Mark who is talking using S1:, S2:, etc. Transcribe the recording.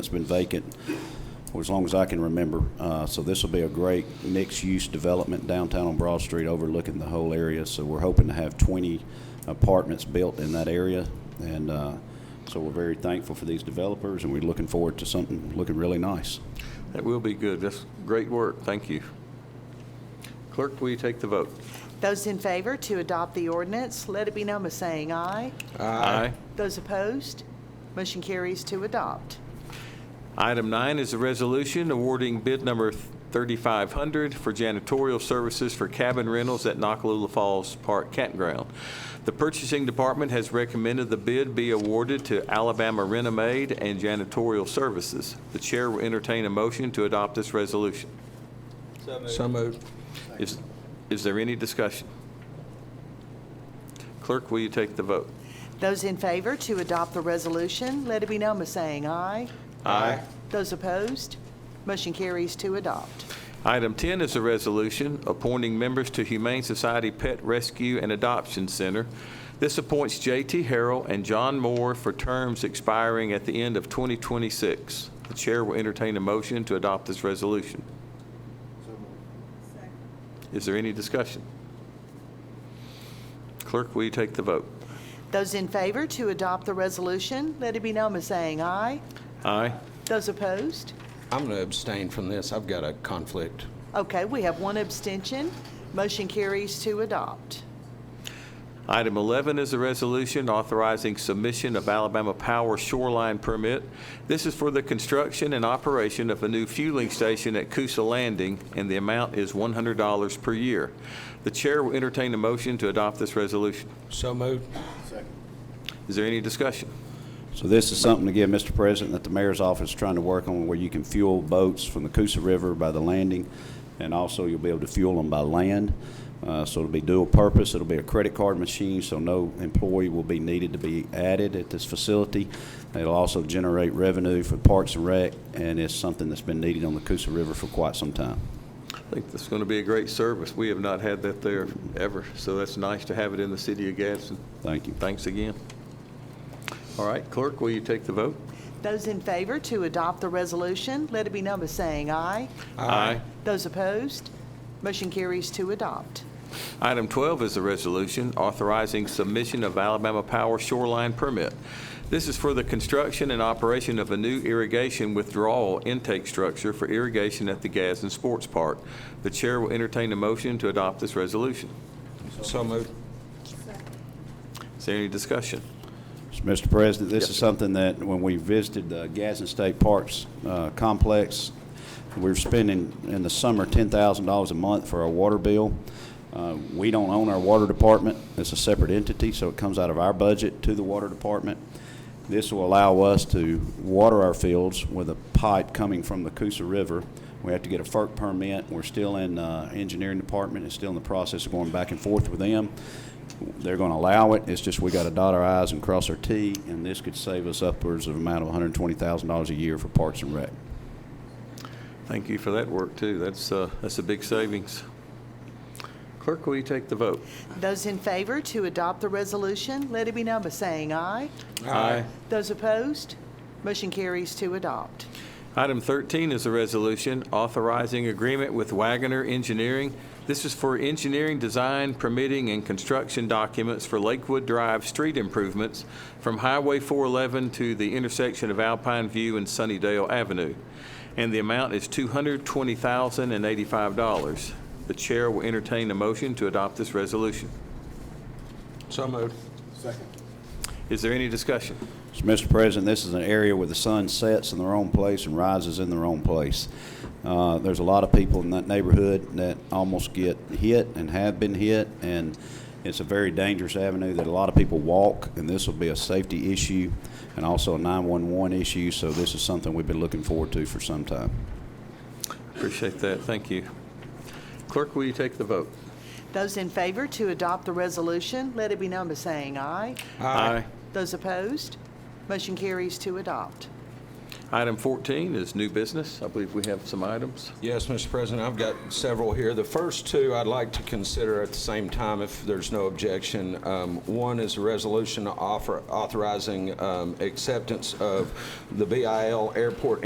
S1: It's been vacant for as long as I can remember. Uh, So this will be a great mixed-use development downtown on Broad Street overlooking the whole area. So we're hoping to have 20 apartments built in that area. And uh, so we're very thankful for these developers, and we're looking forward to something looking really nice.
S2: That will be good. That's great work. Thank you. Clerk, will you take the vote?
S3: Those in favor to adopt the ordinance, let it be known by saying aye.
S2: Aye.
S3: Those opposed, motion carries to adopt.
S2: Item nine is a resolution awarding bid number 3500 for janitorial services for cabin rentals at Nakalula Falls Park Campground. The purchasing department has recommended the bid be awarded to Alabama Renomaid and Janitorial Services. The chair will entertain a motion to adopt this resolution.
S4: So moved.
S2: Is, is there any discussion? Clerk, will you take the vote?
S3: Those in favor to adopt the resolution, let it be known by saying aye.
S2: Aye.
S3: Those opposed, motion carries to adopt.
S2: Item 10 is a resolution appointing members to Humane Society Pet Rescue and Adoption Center. This appoints J.T. Harrell and John Moore for terms expiring at the end of 2026. The chair will entertain a motion to adopt this resolution. Is there any discussion? Clerk, will you take the vote?
S3: Those in favor to adopt the resolution, let it be known by saying aye.
S2: Aye.
S3: Those opposed,
S4: I'm going to abstain from this. I've got a conflict.
S3: okay, we have one abstention, motion carries to adopt.
S2: Item 11 is a resolution authorizing submission of Alabama Power Shoreline Permit. This is for the construction and operation of a new fueling station at Coosa Landing, and the amount is $100 per year. The chair will entertain a motion to adopt this resolution.
S4: So moved.
S2: Is there any discussion?
S1: So this is something, again, Mr. President, that the mayor's office is trying to work on, where you can fuel boats from the Coosa River by the landing, and also you'll be able to fuel them by land. Uh, So it'll be dual purpose. It'll be a credit card machine, so no employee will be needed to be added at this facility. It'll also generate revenue for Parks and Rec, and it's something that's been needed on the Coosa River for quite some time.
S2: I think this is going to be a great service. We have not had that there ever, so that's nice to have it in the city of Gadsden.
S1: Thank you.
S2: Thanks again. All right, clerk, will you take the vote?
S3: Those in favor to adopt the resolution, let it be known by saying aye.
S2: Aye.
S3: Those opposed, motion carries to adopt.
S2: Item 12 is a resolution authorizing submission of Alabama Power Shoreline Permit. This is for the construction and operation of a new irrigation withdrawal intake structure for irrigation at the Gadsden Sports Park. The chair will entertain a motion to adopt this resolution.
S4: So moved.
S2: Is there any discussion?
S1: So, Mr. President, this
S2: Yes,
S1: is
S2: sir.
S1: something that, when we visited the Gadsden State Parks uh, Complex, we were spending in the summer $10,000 a month for our water bill. Uh, We don't own our water department. It's a separate entity, so it comes out of our budget to the water department. This will allow us to water our fields with a pipe coming from the Coosa River. We have to get a FERC permit. We're still in uh, engineering department. It's still in the process of going back and forth with them they're going to allow it. It's just we got to dot our i's and cross our t, and this could save us upwards of amount of $120,000 a year for Parks and Rec.
S2: Thank you for that work, too. That's, uh, that's a big savings. Clerk, will you take the vote?
S3: Those in favor to adopt the resolution, let it be known by saying aye.
S2: Aye.
S3: Those opposed, motion carries to adopt.
S2: Item 13 is a resolution authorizing agreement with Wagoner Engineering. This is for engineering, design, permitting, and construction documents for Lakewood Drive street improvements from Highway 411 to the intersection of Alpine View and Sunnydale Avenue, and the amount is $220,085. The chair will entertain a motion to adopt this resolution.
S4: So moved.
S2: Is there any discussion?
S1: So, Mr. President, this is an area where the sun sets in the wrong place and rises in the wrong place. Uh, there's a lot of people in that neighborhood that almost get hit and have been hit, and it's a very dangerous avenue that a lot of people walk, and this will be a safety issue and also a 911 issue, so this is something we've been looking forward to for some time.
S2: Appreciate that. Thank you. Clerk, will you take the vote?
S3: Those in favor to adopt the resolution, let it be known by saying aye. Those opposed, motion carries to adopt.
S2: Item 14 is new business. I believe we have some items.
S4: Yes, Mr. President, I've got several here. The first two I'd like to consider at the same time if there's no objection. Um, One is a resolution offer- authorizing um, acceptance of the BIL Airport